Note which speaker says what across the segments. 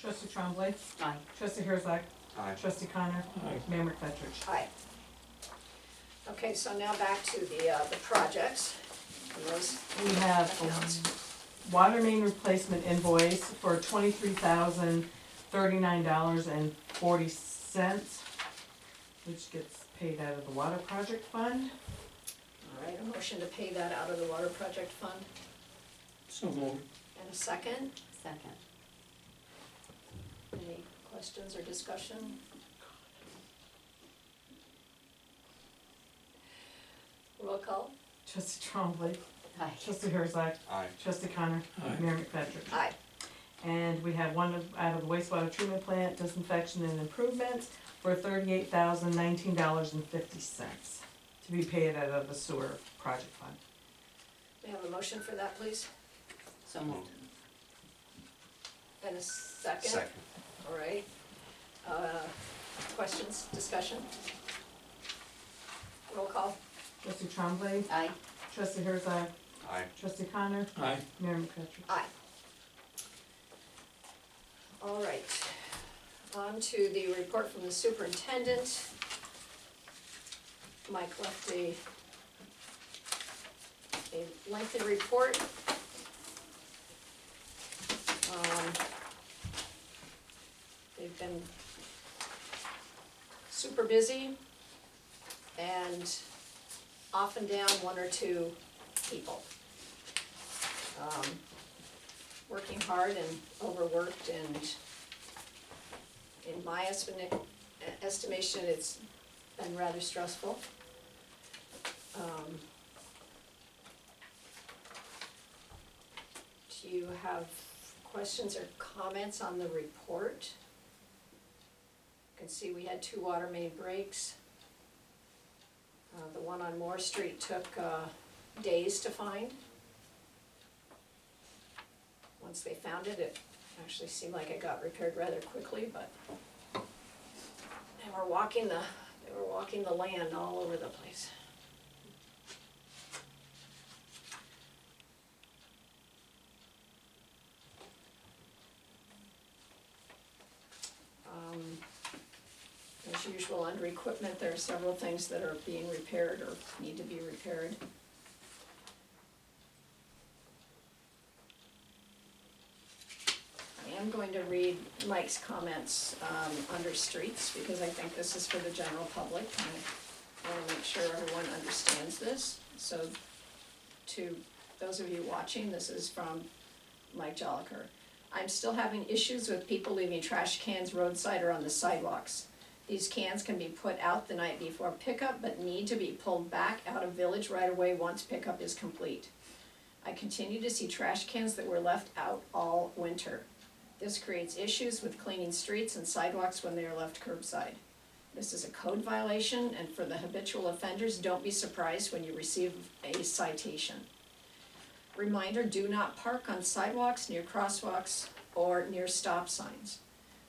Speaker 1: Trustee Trombley.
Speaker 2: Aye.
Speaker 1: Trustee Herzog.
Speaker 3: Aye.
Speaker 1: Trustee Connor.
Speaker 4: Aye.
Speaker 1: Mayor McFetrich.
Speaker 2: Aye. Okay, so now back to the, uh, the projects. And those-
Speaker 1: We have a water main replacement invoice for twenty-three thousand thirty-nine dollars and forty cents, which gets paid out of the water project fund.
Speaker 2: All right, a motion to pay that out of the water project fund
Speaker 4: So moved.
Speaker 2: and a second.
Speaker 5: Second.
Speaker 2: Any questions or discussion? Roll call?
Speaker 1: Trustee Trombley.
Speaker 5: Aye.
Speaker 1: Trustee Herzog.
Speaker 3: Aye.
Speaker 1: Trustee Connor.
Speaker 4: Aye.
Speaker 1: Mayor McFetrich.
Speaker 2: Aye.
Speaker 1: And we have one of- out of the wastewater treatment plant disinfection and improvements for thirty-eight thousand nineteen dollars and fifty cents to be paid out of the sewer project fund.
Speaker 2: May I have a motion for that, please?
Speaker 5: So moved.
Speaker 2: And a second?
Speaker 3: Second.
Speaker 2: All right. Uh, Questions, discussion? Roll call?
Speaker 1: Trustee Trombley.
Speaker 5: Aye.
Speaker 1: Trustee Herzog.
Speaker 3: Aye.
Speaker 1: Trustee Connor.
Speaker 4: Aye.
Speaker 1: Mayor McFetrich.
Speaker 2: Aye. All right, on to the report from the superintendent. Mike left a, a lengthy report. Um, They've been super busy and off and down one or two people. Um, working hard and overworked and in my estimate, estimation, it's been rather stressful. Um, Do you have questions or comments on the report? You can see we had two water main breaks. Uh, the one on Moore Street took, uh, days to find once they found it, it actually seemed like it got repaired rather quickly, but they were walking the, they were walking the land all over the place. Um, As usual, under equipment, there are several things that are being repaired or need to be repaired. I am going to read Mike's comments um, under streets, because I think this is for the general public. and I want to make sure everyone understands this. So to those of you watching, this is from Mike Joliker. I'm still having issues with people leaving trash cans roadside or on the sidewalks. These cans can be put out the night before pickup, but need to be pulled back out of village right away once pickup is complete. I continue to see trash cans that were left out all winter. This creates issues with cleaning streets and sidewalks when they are left curbside. This is a code violation, and for the habitual offenders, don't be surprised when you receive a citation. Reminder, do not park on sidewalks, near crosswalks, or near stop signs.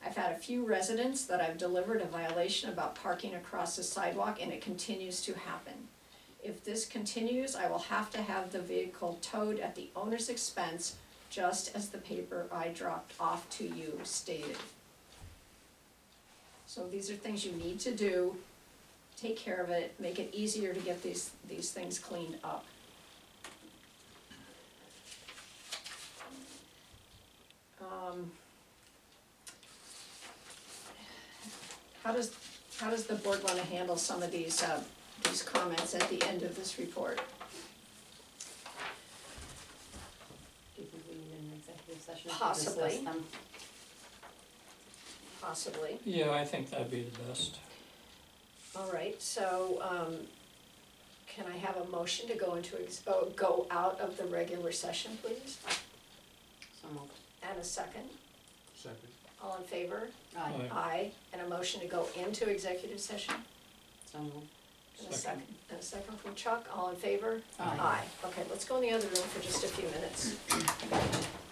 Speaker 2: I've had a few residents that I've delivered a violation about parking across the sidewalk, and it continues to happen. If this continues, I will have to have the vehicle towed at the owner's expense, just as the paper I dropped off to you stated. So these are things you need to do, take care of it, make it easier to get these, these things cleaned up. Um, How does, how does the board wanna handle some of these, uh, these comments at the end of this report.
Speaker 5: Do you think we need an executive session? to
Speaker 2: Possibly.
Speaker 5: discuss them?
Speaker 2: Possibly.
Speaker 4: Yeah, I think that'd be the best.
Speaker 2: All right, so, um, can I have a motion to go into, ex- oh, go out of the regular session, please?
Speaker 5: So moved.
Speaker 2: And a second,
Speaker 3: Second.
Speaker 2: all in favor?
Speaker 5: Aye.
Speaker 4: Aye.
Speaker 2: Aye, and a motion to go into executive session?
Speaker 5: So moved.
Speaker 2: And a
Speaker 4: Second.
Speaker 2: second, and a second from Chuck, all in favor?
Speaker 5: Aye.
Speaker 2: Okay, let's go in the other room for just a few minutes.